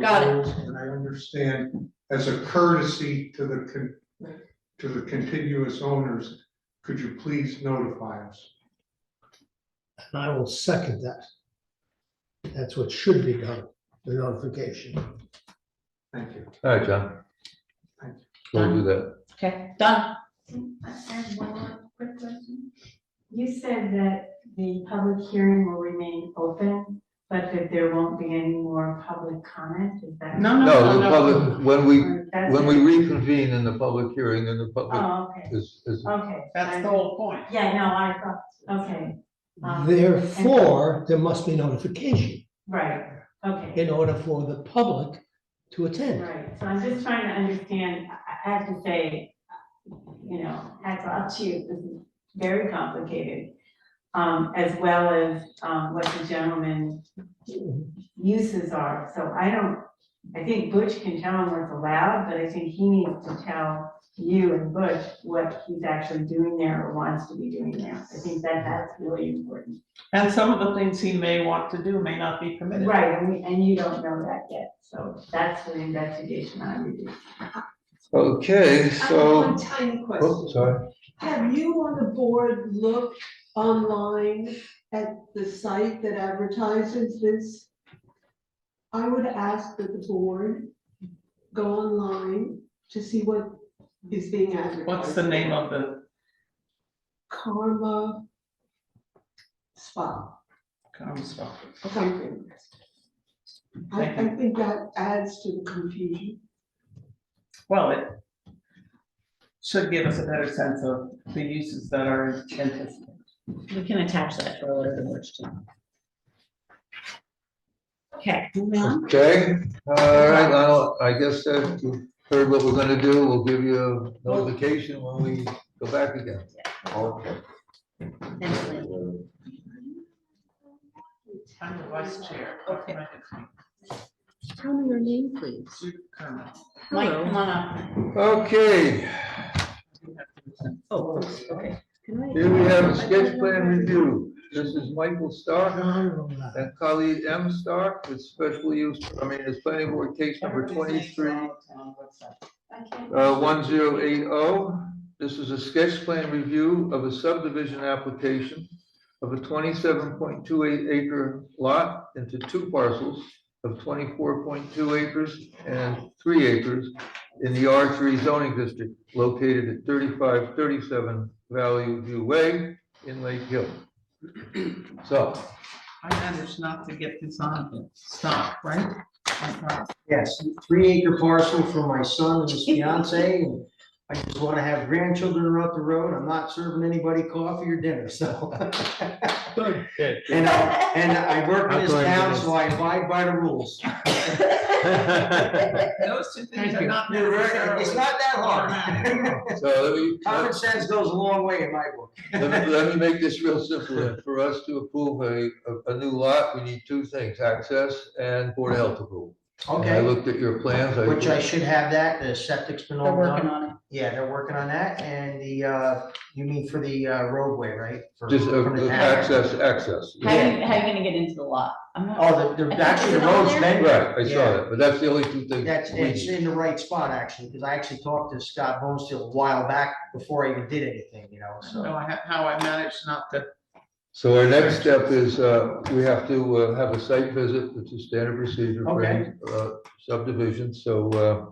Got it. rules, And I understand, as a courtesy to the con, Right. to the contiguous owners, could you please notify us? And I will second that. That's what should be done, the notification. Thank you. All right, John. Thank We'll do that. Okay, done. I have one more quick question. You said that the public hearing will remain open, but that there won't be any more public comment, is that? No, No, the public, when we, Or that's when we it? reconvene in the public hearing, then the public Oh, okay, is, is, okay. That's the whole point. Yeah, no, I thought, okay, Um, Therefore, there must be notification right, okay, in order for the public to attend. right. So I'm just trying to understand, I, I have to say, you know, hats off to you, this is very complicated. Um, as well as, um, what the gentleman uses are, so I don't, I think Butch can tell him what's allowed, but I think he needs to tell you and Butch what he's actually doing there or wants to be doing there. I think that that's really important. And some of the things he may want to do may not be permitted. Right, and, we- and you don't know that yet, so that's an investigation I would do. okay, I have so. one tiny Oh, question. sorry. Have you on the board looked online at the site that advertises this? I would ask that the board go online to see what is being advertised. What's the name of the Karma Spa, um, stuff? something. I, Thank you. I think that adds to the confusion. Well, it should give us a better sense of the uses that are anticipated. We can attach that for a later question. Okay, moving on. Okay, all right, Lionel, I guess that you heard what we're gonna do. We'll give you a notification when we go back again. Okay. Excellent. I'm the vice chair. Okay. Tell me your name, please. Mike, Hello. come on up. Okay, Oh, okay. Can I- here we have sketch plan review. This is Michael Starr. Well, And colleague M Star with special use, I mean, it's planning board case number twenty-three, uh, one zero eight oh. This is a sketch plan review of a subdivision application of a twenty-seven point two eight acre lot into two parcels of twenty-four point two acres and three acres in the R three zoning district located at thirty-five thirty-seven Valley View Way in Lake Hill. So, I managed not to get this on, but stop, right? Yes, three acre parcel for my son and his fiance. and I just want to have grandchildren up the road. I'm not serving anybody coffee or dinner, so. And I, and I work in this town, so I abide by the rules. Those two things are not You're right, necessarily. It's not that hard. so let me. Common sense goes a long way in my book. Let me, let me make this real simple. then. For us to approve a, a, a new lot, we need two things, access and board of health approval. And I Okay, looked at your plans. which I should have that. The septic's been They're all working done. on it. Yeah, they're working on that. And the, uh, you mean for the uh, roadway, right? For- Just uh, from the uh, town. access, access. How are you, how you gonna get into the lot? I'm not. Oh, the, I the, think actually, it's the on road's there. been. Right, I saw Yeah. that, but that's the only two things. That's, we it's need. in the right spot, actually, because I actually talked to Scott Bonesteel a while back before I even did anything, you know, I don't so. know how- how I managed not to So our next step is, uh, we have to uh, have a site visit, which is standard procedure for any, uh, subdivision, so, uh,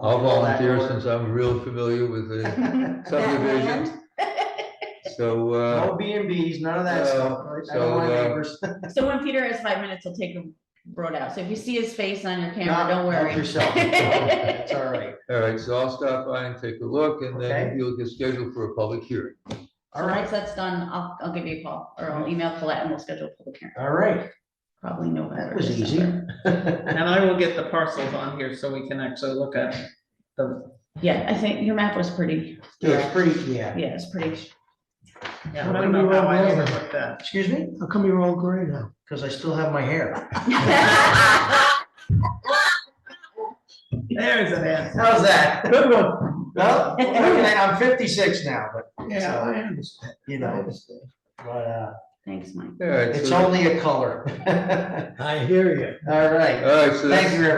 I'll All that volunteer order. since I'm real familiar with the subdivision. So, uh, No B and Bs, none of that Uh, stuff. I so, don't want uh, neighbors. So when Peter has five minutes, he'll take a road out. So if you see his face on your camera, Not- don't help worry. Yourself. It's all right. all right, so I'll stop by and take a look, and Okay. then you'll get scheduled for a public hearing. All So once right, that's done, I'll, I'll give you a call or I'll email Colette and we'll schedule a public hearing, all right. probably November. That was easy. December. And I will get the parcels on here so we can actually look at them. Yeah, I think your map was pretty, It's pretty, yeah. yeah, it's pretty. Yeah, How I about don't know you, how uh, I Robert? overlooked that. Excuse me? How come you're all gray now? Because I still have my hair. There's an answer. How's that? Good one. Well, I'm fifty-six now, but, Yeah, I understand. you know, but, uh, Thanks, Mike. All right, It's so- only a color. I hear you. All right. All right, so that's- Thank you,